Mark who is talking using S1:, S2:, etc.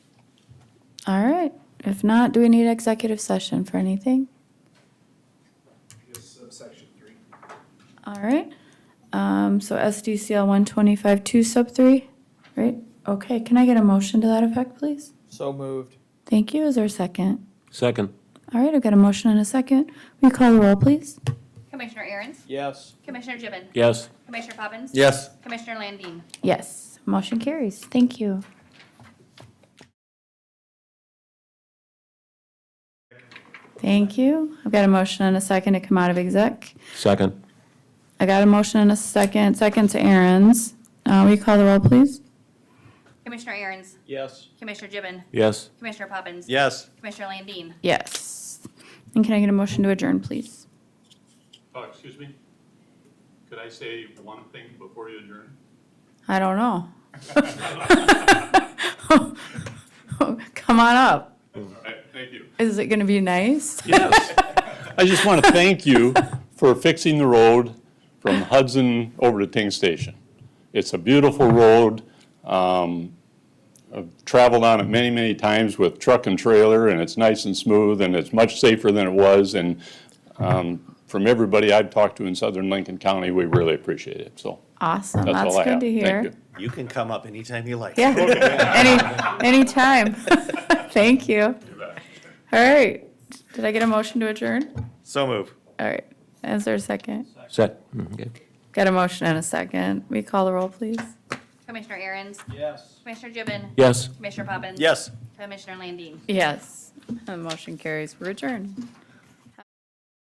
S1: All right. If not, do we need executive session for anything?
S2: Just subsection three.
S1: All right. Um, so SDCL one twenty-five two sub three, right? Okay, can I get a motion to that effect, please?
S3: So moved.
S1: Thank you. Is there a second?
S4: Second.
S1: All right, I've got a motion and a second. Will you call the roll, please?
S5: Commissioner Aaron's,
S3: Yes.
S5: Commissioner Gibbon,
S4: Yes.
S5: Commissioner Poppins.
S4: Yes.
S5: Commissioner Landine.
S1: Yes, motion carries. Thank you. Thank you. I've got a motion and a second to come out of exec.
S4: Second.
S1: I got a motion and a second, second to Aaron's. Uh, will you call the roll, please?
S5: Commissioner Aaron's,
S3: Yes.
S5: Commissioner Gibbon,
S4: Yes.
S5: Commissioner Poppins.
S4: Yes.
S5: Commissioner Landine.
S1: Yes. And can I get a motion to adjourn, please?
S6: Oh, excuse me? Could I say one thing before you adjourn?
S1: I don't know. Come on up.
S6: All right, thank you.
S1: Is it gonna be nice?
S6: Yes. I just want to thank you for fixing the road from Hudson over to Ting Station. It's a beautiful road. Um, I've traveled on it many, many times with truck and trailer, and it's nice and smooth, and it's much safer than it was. And um, from everybody I've talked to in southern Lincoln County, we really appreciate it. So
S1: Awesome.
S6: that's
S1: That's
S6: all I
S1: good
S6: have.
S1: to
S6: Thank
S1: hear.
S6: you.
S7: You can come up anytime you like.
S1: Yeah, any, anytime. Thank you. All right. Did I get a motion to adjourn?
S7: So move.
S1: All right. Is there a second?
S4: Sec. Okay.
S1: Got a motion and a second. We call the roll, please.
S5: Commissioner Aaron's,
S3: Yes.
S5: Commissioner Gibbon,
S4: Yes.
S5: Commissioner Poppins.
S7: Yes.
S5: Commissioner Landine.
S1: Yes. The motion carries. We're adjourned.